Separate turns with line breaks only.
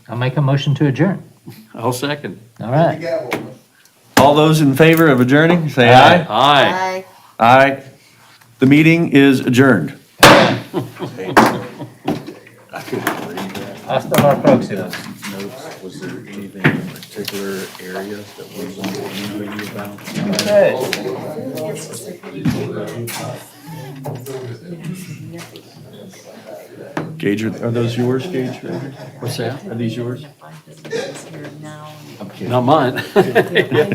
I'll make a motion to adjourn.
I'll second.
All right.
gavel.
All those in favor of adjourning, say aye.
Aye.
Aye.
Aye. The meeting is adjourned.
Hasta la próxima.
notes, was there anything in particular area that was on the menu about?
Good.
Gage, are are those yours, Gage? Are
What's that?
these yours?
Here now.
Not mine.